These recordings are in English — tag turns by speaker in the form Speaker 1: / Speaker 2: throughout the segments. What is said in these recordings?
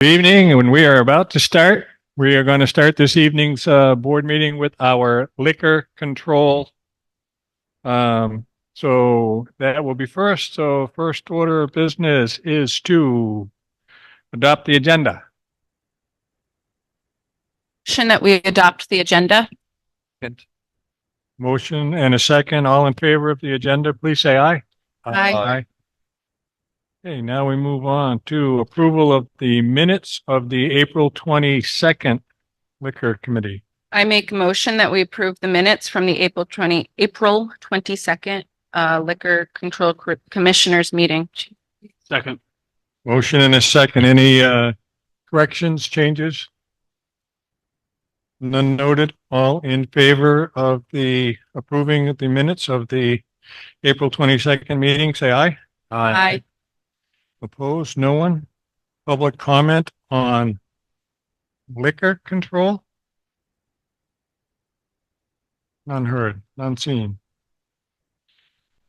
Speaker 1: Good evening, and we are about to start. We are going to start this evening's uh, board meeting with our liquor control. Um, So that will be first. So first order of business is to adopt the agenda.
Speaker 2: Motion that we adopt the agenda.
Speaker 1: Motion and a second. All in favor of the agenda, please say aye.
Speaker 2: Aye.
Speaker 1: Okay, now we move on to approval of the minutes of the April 22nd Liquor Committee.
Speaker 2: I make a motion that we approve the minutes from the April twenty, April twenty-second uh Liquor Control Co- Commissioners meeting.
Speaker 1: Second. Motion and a second. Any uh, corrections, changes? None noted. All in favor of the approving of the minutes of the April 22nd meeting, say aye.
Speaker 2: Aye.
Speaker 1: Opposed? No one? Public comment on liquor control? None heard, none seen.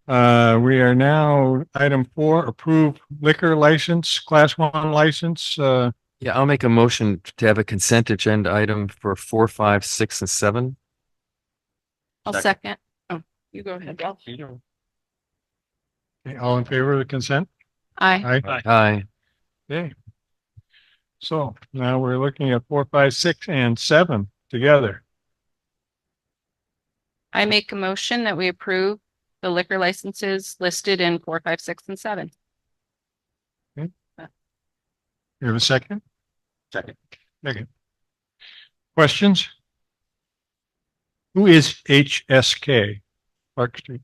Speaker 1: Uh, we are now item four, approve liquor license, class one license, uh,
Speaker 3: Yeah, I'll make a motion to have a consent agenda item for four, five, six, and seven.
Speaker 2: I'll second. Oh, you go ahead, Bill.
Speaker 1: okay, all in favor of the consent?
Speaker 2: Aye.
Speaker 1: Aye.
Speaker 3: Aye.
Speaker 1: Okay. So now we're looking at four, five, six and seven together.
Speaker 2: I make a motion that we approve the liquor licenses listed in four, five, six, and seven.
Speaker 1: You have a second?
Speaker 3: Second.
Speaker 1: Second. Questions? Who is HSK? Park Street.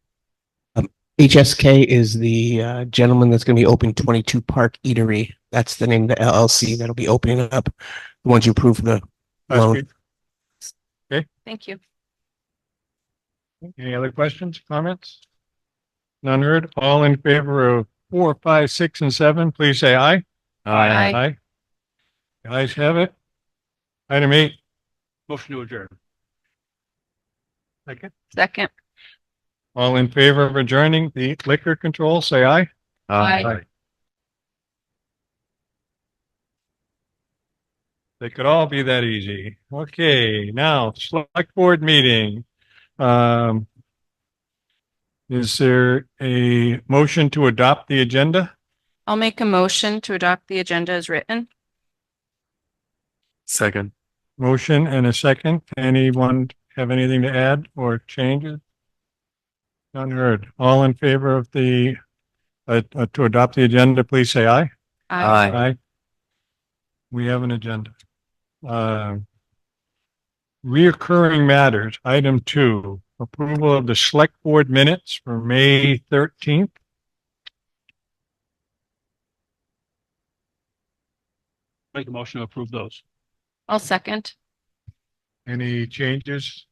Speaker 4: HSK is the uh, gentleman that's going to be opening 22 Park Eatery. That's the name of the LLC that'll be opening up the ones you approve the
Speaker 1: Park
Speaker 4: loan.
Speaker 1: Street.
Speaker 2: Thank you.
Speaker 1: Any other questions, comments? None heard. All in favor of four, five, six, and seven, please say aye.
Speaker 2: Aye.
Speaker 1: Aye. The Ayes have it. Item eight.
Speaker 5: Motion to adjourn.
Speaker 1: Second.
Speaker 2: Second.
Speaker 1: All in favor of adjourning the liquor control, say aye.
Speaker 2: Aye.
Speaker 1: They could all be that easy. Okay, now select board meeting. Um. Is there a motion to adopt the agenda?
Speaker 2: I'll make a motion to adopt the agenda as written.
Speaker 3: Second.
Speaker 1: Motion and a second. Anyone have anything to add or changes? None heard. All in favor of the, uh, uh, to adopt the agenda, please say aye.
Speaker 3: Aye.
Speaker 1: Aye. We have an agenda. Um, Reoccurring matters, item two, approval of the select board minutes for May thirteenth.
Speaker 5: Make a motion to approve those.
Speaker 2: I'll second.
Speaker 1: Any changes?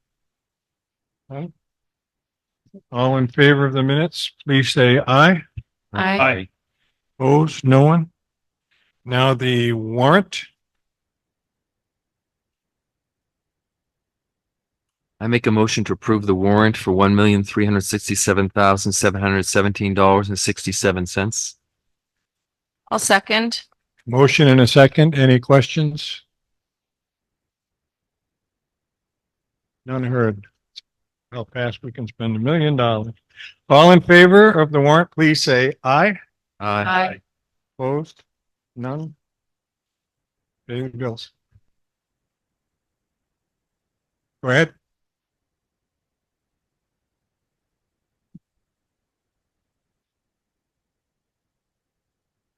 Speaker 1: None? All in favor of the minutes, please say aye.
Speaker 2: Aye.
Speaker 1: Opposed, no one? Now the warrant,
Speaker 3: I make a motion to approve the warrant for one million, three hundred sixty-seven thousand, seven hundred seventeen dollars and sixty-seven cents.
Speaker 2: I'll second.
Speaker 1: motion and a second. Any questions? None heard. How fast we can spend a million dollars. All in favor of the warrant, please say aye.
Speaker 3: Aye.
Speaker 2: Aye.
Speaker 1: Opposed? None? Pay the bills. Go ahead.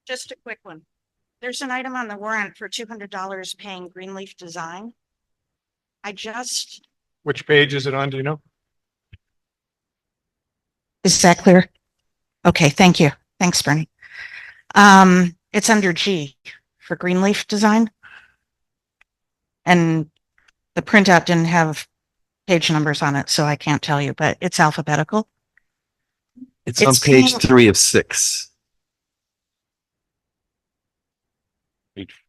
Speaker 6: Just a quick one. There's an item on the warrant for two hundred dollars paying Greenleaf Design. I just.
Speaker 1: Which page is it on? Do you know?
Speaker 6: Is that clear? Okay, thank you. Thanks, Bernie. Um, it's under G for Greenleaf Design. And the printout didn't have page numbers on it, so I can't tell you, but it's alphabetical.
Speaker 3: It's on
Speaker 6: It's
Speaker 3: page
Speaker 6: being-
Speaker 3: three of six.
Speaker 5: Page-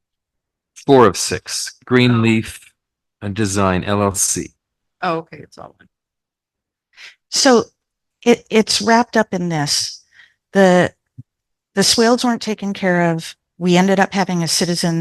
Speaker 3: Four of six, Greenleaf and Design LLC.
Speaker 2: Oh, okay, it's all one.
Speaker 6: So it, it's wrapped up in this. The, the swales weren't taken care of. We ended up having a citizen